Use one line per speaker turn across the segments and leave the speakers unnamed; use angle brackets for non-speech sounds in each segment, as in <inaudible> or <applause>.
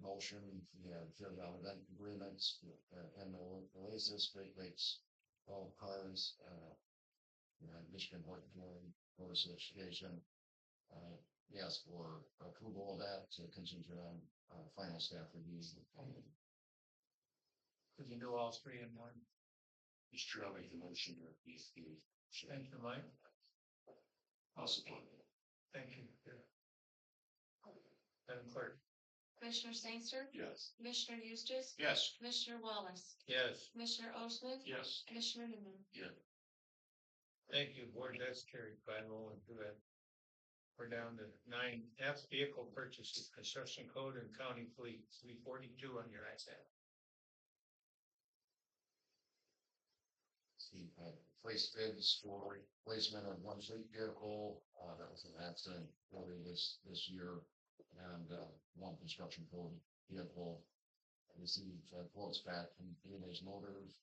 propulsion, you know, to about event agreements, uh, and the Oasis rate rates, all cars, uh, you know, Michigan Workforce Board Association, uh, yes, for approval of that to contingent on, uh, final staff reviews.
Could you do all three in one?
It's true, I'll make the motion, or if you.
Thank you, Mike.
I'll support it.
Thank you. Madam Clerk?
Commissioner Stanser,
Yes.
Commissioner Eustace,
Yes.
Commissioner Wallace,
Yes.
Commissioner Osmann,
Yes.
Commissioner Newman.
Thank you, Board. That's carried by roll and do that. We're down to nine F, vehicle purchases, construction code and county fleet, three forty-two on your iPad.
See, uh, place bids for replacement of one fleet vehicle, uh, that was an accident early this, this year. And, uh, one construction code vehicle. And this is, uh, quotes back from English Motors.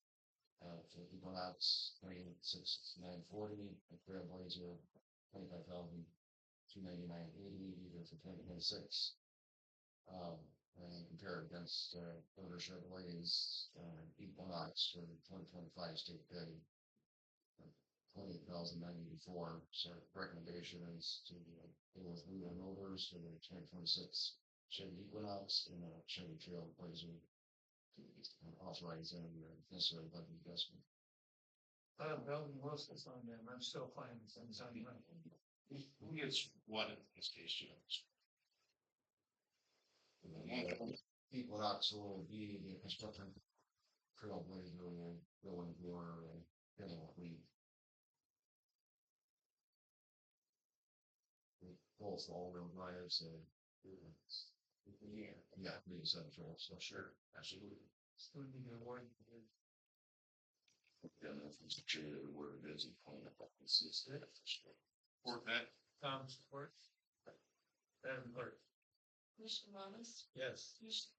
Uh, for Eagle Ops, twenty six nine forty, a Grand Blazer, twenty five thousand, two ninety nine eighty, either for twenty twenty six. Um, and compare it against, uh, Burger Chevrolet's, uh, Equinox for twenty twenty-five state bid. Twenty thousand nine eighty-four, so recommendation is to, uh, go with Lula Motors for the twenty twenty-six Chevy Equinox and a Chevy Trail Blazer. And Authorize any necessary budget adjustment.
Uh, Belton Wilson's on them. I'm still finding some, so you know.
Who gets what in this case, Jones? Equinox will be the construction trailblazer and going for, you know, we. we Both all real drivers and. Yeah. Yeah, the essential, so sure, absolutely.
Soon to get awarded.
Then if it's a chair, where it is, you point up, it's, it's there for sure. Or that.
Tom support. Madam Clerk?
Commissioner Wallace,
Yes.
Commissioner-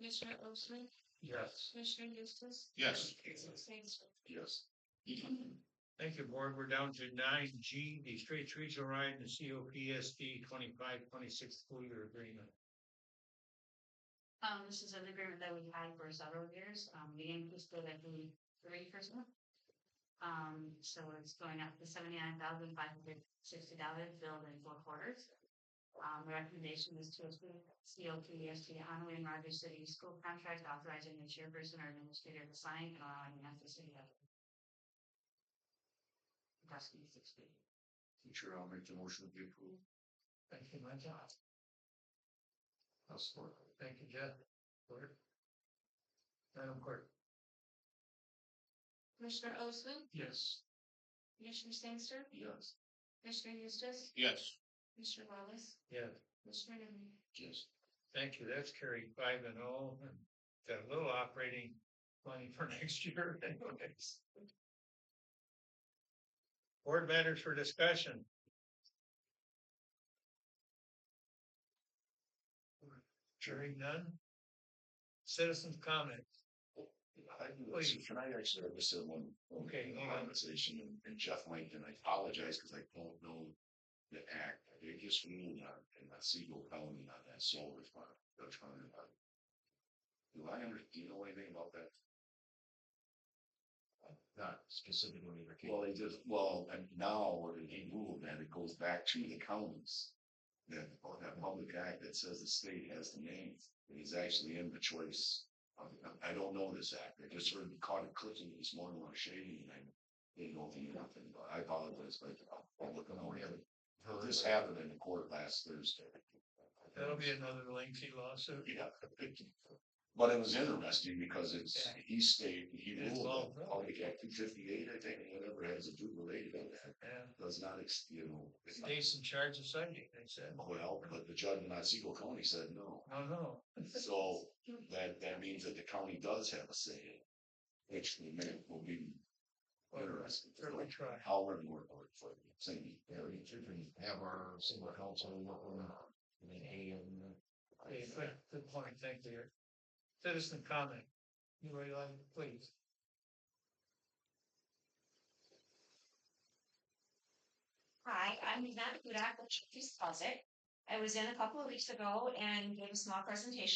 Commissioner Osmann,
Yes.
Commissioner Eustace.
Yes.
Commissioner Stanser.
Yes.
Thank you, board. We're down to nine G, the Straits Regional Ride and COPSD twenty-five, twenty-six school year agreement.
Um, this is an agreement that we had for several years, um, we increased it every three percent. Um, so it's going up to seventy-nine thousand five hundred sixty dollars billed in four quarters. Um, the recommendation is to approve COPSD Hanway and Rogers City School Contract authorizing the chairperson or administrator to sign and allowing the necessary. Dusty sixty.
Sure, I'll make the motion to be approved.
Thank you, my job.
I'll support.
Thank you, Jeff. Clerk? Madam Clerk?
Commissioner Osmann,
Yes.
Commissioner Stanser,
Yes.
Commissioner Eustace,
Yes.
Commissioner Wallace,
Yes.
Commissioner Newman.
Yes.
Thank you. That's carried five and oh, and got a little operating money for <laughs> next year anyways. Board matters for discussion. Hearing none. Citizens comment.
I do, actually- can I actually, I just said one, one
Okay, go on.
conversation and- and Jeff might, and I apologize because I don't know the act. They just ruled on, and that's Eagle County on that solar farm, they're trying to. Do I under, do you know anything about that? Not specifically. Well, they just, well, and now they ruled that it goes back to the counties. That, or that public act that says the state has the name, is actually in the choice um, I, I don't know this act, I just heard, caught it clicking this morning on Shady and I didn't know anything about it, but I apologize, but I'll- I'll look on over it. This happened in the court last Thursday.
That'll be another lengthy lawsuit.
Yeah. But it was interesting because it's, he stayed, he ruled on public act two fifty-eight, I think, whatever has to do related to that,
And
does not, ex- you know. it's not-
State's in charge of citing, they said.
Well, but the judge in Otsego County said no.
No, no.
So that, that means that the county does have a say in it, which will make, will be interesting.
Certainly try.
How we're more for for the same area, we can have our single council work on it, and then
Okay,
AM.
good, good point, thank you. Citizen comment, you ready, Lon? please?
Hi, I'm Yvette Hudak with Chief Deposit. I was in a couple of weeks ago and gave a small presentation